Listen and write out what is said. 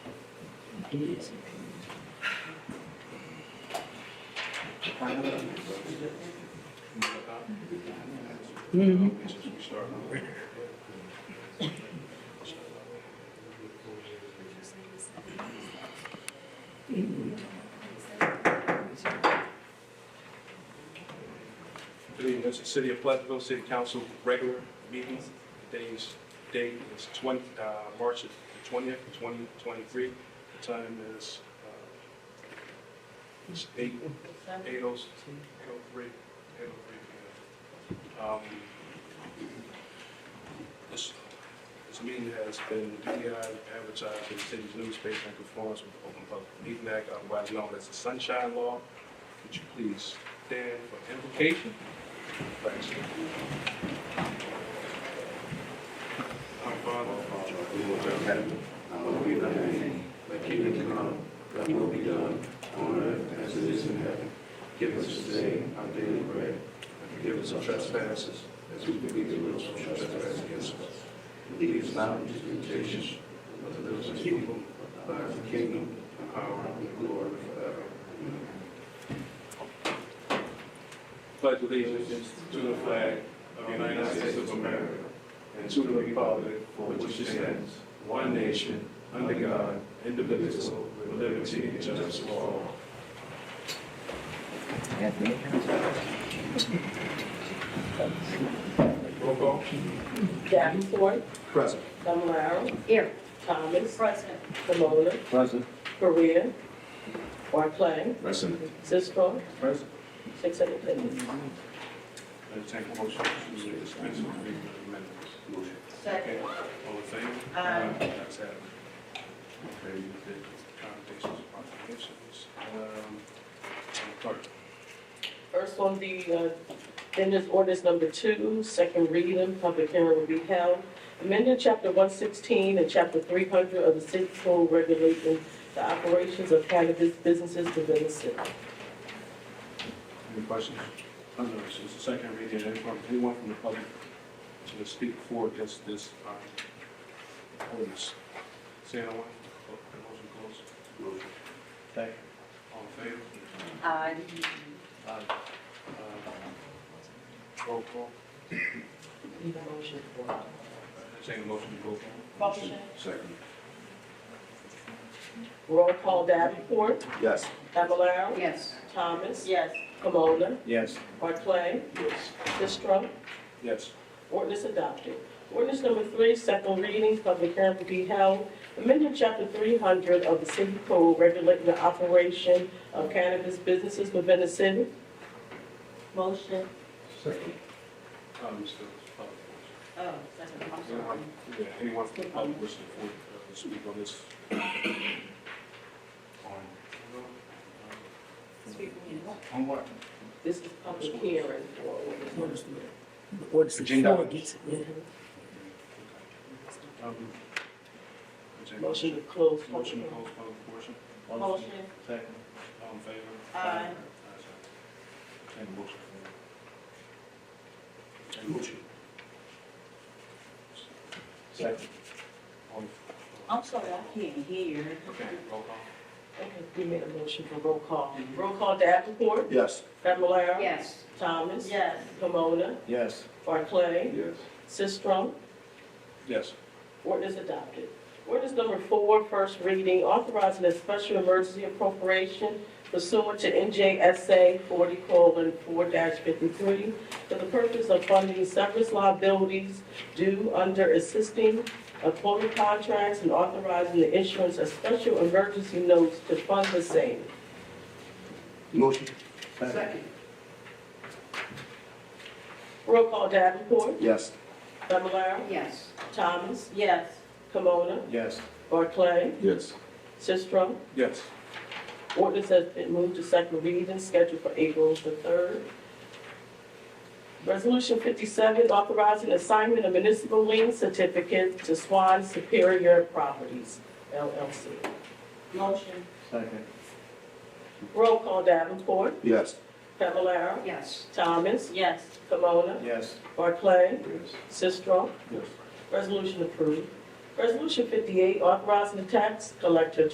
Good evening, this is City of Pleasantville City Council regular meeting. Today's date is 20, uh, March the 20th, 2023. The time is uh, it's eight- 8:03, 8:03, 8:03 p.m. Um, This this meeting has been DEI advertised in the city's newspaper in conformance with the Open Public Meeting Act, otherwise known as the Sunshine Law. Could you please stand for invocation? Thanks. Our Father, who art in heaven, pledge allegiance to the flag of the United States of America and to the republic for which it stands, one nation, under God, indivisible, with liberty and justice for all. Roll call. Davenport, Present. Fablelaro, Here. Thomas, Present. Camona, Present. Korea, Barclay, Present. Cisco, Present. six and appendix. Entertain a motion to dispense with the reading of the amendments. Motion. Second. Okay, all in favor? Aye. Ayes have it. Okay, you did commendations, proclamations. Um, Clerk. First on the, uh, then is ordinance number two, second reading, public hearing will be held. Amending chapter one sixteen and chapter three hundred of the city code regulating the operations of cannabis businesses within the city. Any questions? None, no, it's just a second reading, anyone, anyone from the public to speak for against this, um, ordinance? Say no one, motion closed. Motion. Second. All in favor? Aye. Aye. Uh, Roll call, Need a motion for. entertain a motion to roll call. Motion. Second. Roll call Davenport, Yes. Fablelaro, Yes. Thomas, Yes. Camona, Yes. Barclay, Yes. Sistrum, Yes. Ordinance adopted. Ordinance number three, second reading, public hearing to be held. Amendment chapter three hundred of the city code regulating the operation of cannabis businesses within the city. Motion. Second. Um, Mr. Public. Oh, second. I'm sorry. Anyone, yeah, anyone from the public wishing to uh, speak on this? On. Speak when you want. On what? This is public hearing for ordinance. What's the Agenda floor items. gets it? Um, entertain a Motion to close public Motion to hearing. close public portion. Motion. Second. All in favor? Aye. Ayes have it. Entertain a motion. for- Entertain a motion. Second. All in- I'm sorry, I can't hear. Okay, roll call. Okay, we made a motion for roll call. Roll call Davenport, Yes. Fablelaro. Yes. Thomas. Yes. Pomona, Yes. Barclay, Yes. Sistrum, Yes. Ordinance adopted. Ordinance number four, first reading, authorizing a special emergency appropriation pursuant to NJSA forty four fifty-three for the purpose of funding severance liabilities due under assisting employment contracts and authorizing the issuance of special emergency notes to fund the same. Motion. Second. Roll call Davenport, Yes. Fablelaro, Yes. Thomas, Yes. Kimona, Yes. Barclay, Yes. Sistrum, Yes. Ordinance has been moved to second reading, scheduled for April the third. Resolution fifty-seven, authorizing assignment of municipal lien certificate to Swan Superior Properties LLC. Motion. Second. Roll call Davenport, Yes. Fablelaro, Yes. Thomas, Yes. Camona, Yes. Barclay, Yes. Sistrum. Yes. Resolution approved. Resolution fifty-eight, authorizing the tax collector